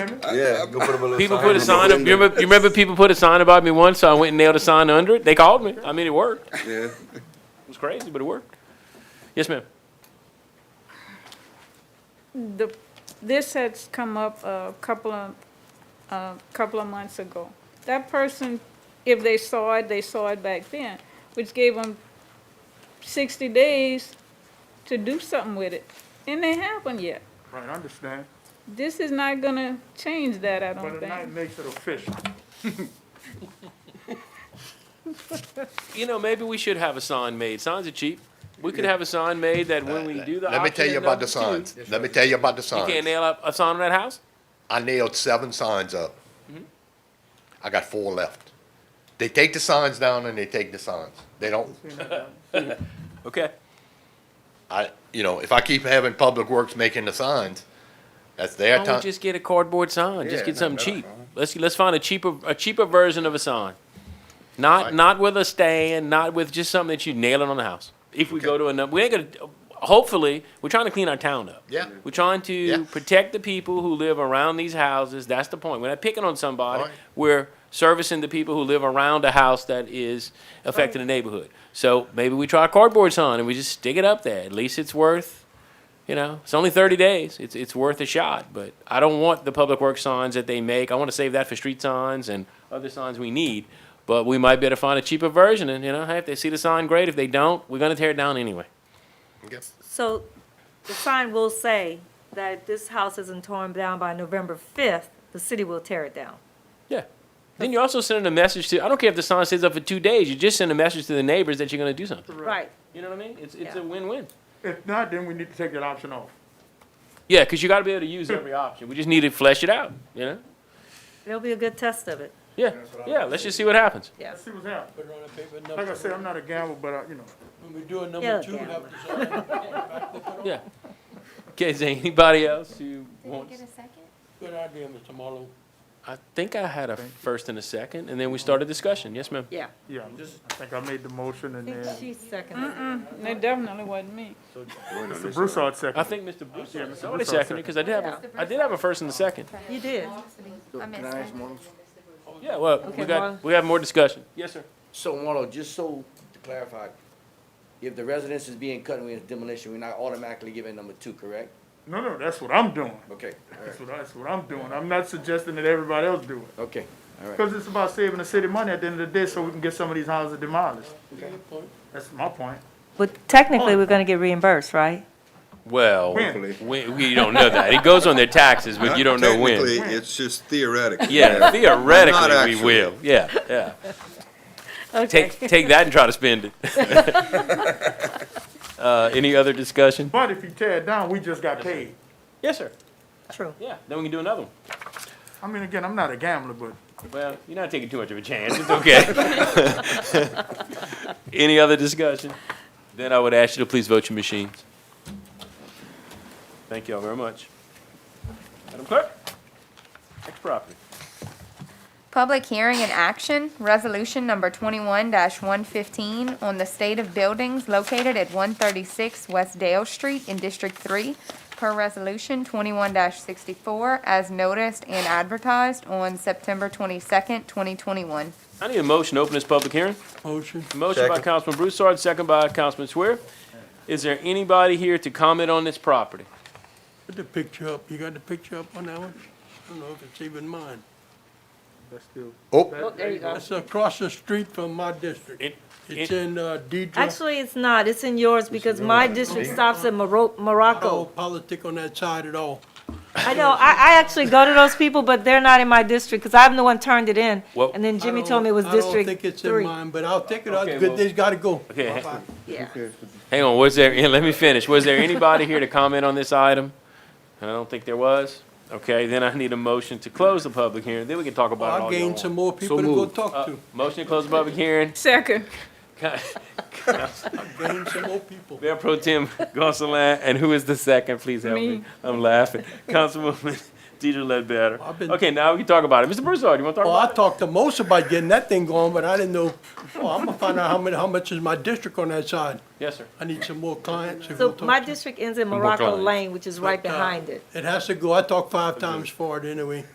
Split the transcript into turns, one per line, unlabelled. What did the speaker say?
Yeah, go put up a little
People
sign
put a
in the
sign up. You
window.
remember, you remember people put a sign about me once, so I went and nailed a sign under it. They called me. I mean, it worked. It
Yeah.
was crazy, but it worked. Yes, ma'am.
The, this had come up a couple of, a couple of months ago. That person, if they saw it, they saw it back then, which gave them sixty days to do something with it, and they haven't yet.
Right, I understand,
This is not gonna change that, I
but
don't
it night
think.
makes it official.
You know, maybe we should have a sign made. Signs are cheap. We could have a sign made that when we do the
Let me
option
tell you
at
about the
number two,
signs. Let me tell you about the
You can't
signs.
nail up a sign on that house?
I nailed seven signs up.
Mm-hmm.
I got four left. They take the signs down and they take the signs. They don't,
Okay.
I, you know, if I keep having Public Works making the signs, that's their
Why don't we
time.
just get a cardboard sign? Just
Yeah,
get
no,
something
no,
cheap. Let's, let's find a cheaper, a cheaper version of a sign. Not, not with a stand, not with just something that you nail it on the house. If we go to another, we ain't gonna, hopefully, we're trying to clean our town up.
Yeah.
We're trying to
Yeah.
protect the people who live around these houses. That's the point. We're not picking on somebody.
Right.
We're servicing the people who live around a house that is affecting the neighborhood. So maybe we try a cardboard sign and we just stick it up there. At least it's worth, you know, it's only thirty days. It's it's worth a shot. But I don't want the public works signs that they make. I want to save that for street signs and other signs we need. But we might be able to find a cheaper version. And you know, hey, if they see the sign, great. If they don't, we're gonna tear it down anyway.
So the sign will say that if this house isn't torn down by November 5th, the city will tear it down.
Yeah. Then you're also sending a message to, I don't care if the sign stays up for two days, you just send a message to the neighbors that you're gonna do something.
Right.
You know what I mean? It's, it's
Yeah.
a win-win.
If not, then we need to take that option off.
Yeah, cause you gotta be able to use every option. We just need to flesh it out, you know?
It'll be a good test of it,
Yeah, yeah, let's just see what happens.
yes.
Let's see what's happening.
Put it on the paper,
Like I
number,
said, I'm not a gamble, but, I- you know,
when we do a
Yeah,
number two,
yeah.
we'll have to sign it.
Yeah. Okay, is there anybody else who wants?
Good idea, Mr. Marlowe.
I think I had a first and a second, and then we started discussion. Yes, ma'am.
Yeah.
yeah, I think I made the motion and
I think
then
she seconded it.
And It definitely wasn't me.
Mr. Broussard
I
seconded.
think Mr. Bruce,
Yeah, Mr.
somebody
Broussard
seconded, because I did have, a- I did have a first and a second.
You did.
I missed it.
Yeah, well, we
Okay, Marlon.
got, we have more discussion. Yes, sir.
So Marlo, just so to clarify, if the residence is being cut and we have demolition, we're not automatically giving number two, correct?
No, no, that's what I'm doing.
Okay, all right,
That's what, I- that's what I'm doing. I'm not suggesting that everybody else do it.
okay, all right.
Because it's about saving the city money at the end of the day so we can get some of these houses demolished.
Good point.
That's my point.
But
Oh.
technically, we're gonna get reimbursed, right?
Well,
When?
we, we don't know that. It goes on their taxes, but you don't know when.
Technically, it's just theoretical.
Yeah,
Not
theoretically, we
actually.
will. Yeah, yeah.
Okay.
Take, take that and try to spend it. Uh, any other discussion?
But if you tear it down, we just got paid.
Yes, sir.
True.
Yeah, then we can do another one.
I mean, again, I'm not a gambler, but
Well, you're not taking too much of a chance. It's okay. Any other discussion? Then I would ask you to please vote your machines. Thank y'all very much. Madam Clerk, next property.
Public hearing and action, resolution number twenty-one one fifteen on the state of buildings located at one thirty-six West Dale Street in District Three, per resolution twenty-one sixty-four, as noticed and advertised on September twenty-second, twenty twenty-one.
I need a motion to open this public hearing.
Motion.
Motion by
Second.
Councilman Broussard, second by Councilman Swier. Is there anybody here to comment on this property?
Put the picture up. You got the picture up on that one? I don't know if it's even mine.
that's still.
Oh,
There you go.
It's across the street from my district.
It-
It's
it-
in uh, Deidre.
Actually, it's not, it's in yours Oh. because my district stops at Moro-
No
Morocco.
politic on that side at all.
I know, I, I actually go to those people, but they're not in my district, because I'm the one turned it in.
Well-
And then
I
Jimmy
don't-
told me it was District
I
Three.
don't think it's in mine, but I'll take it out.
Okay,
Good,
well-
they's gotta go.
Okay, ha-
Yeah.
hang on, was there, let me finish. Was there anybody here to comment on this item? I don't think there was. Okay, then I need a motion to close the public hearing, then we can talk about it
I'll
all you
gain
want.
some more people to go talk
Uh,
to.
Motion to close the public hearing.
Second,
Gain some more people.
Mayor Pro Tem Gonsalas, and who is the second? Please help me.
Me.
I'm laughing. Councilwoman Deidre Ledbetter.
I've been-
Okay, now we can talk about it. Mr. Broussard, you want to talk
Oh, I
about it?
talked to most about getting that thing going, but I didn't know, oh, I'm gonna find out how many, how much is my district on that side.
Yes, sir.
I need some more clients. to go
So
talk
my
to.
district ends in
Morocco
Morocco
Lane.
Lane, which is right
But, uh,
behind it.
It has to go, I talked five times for it anyway.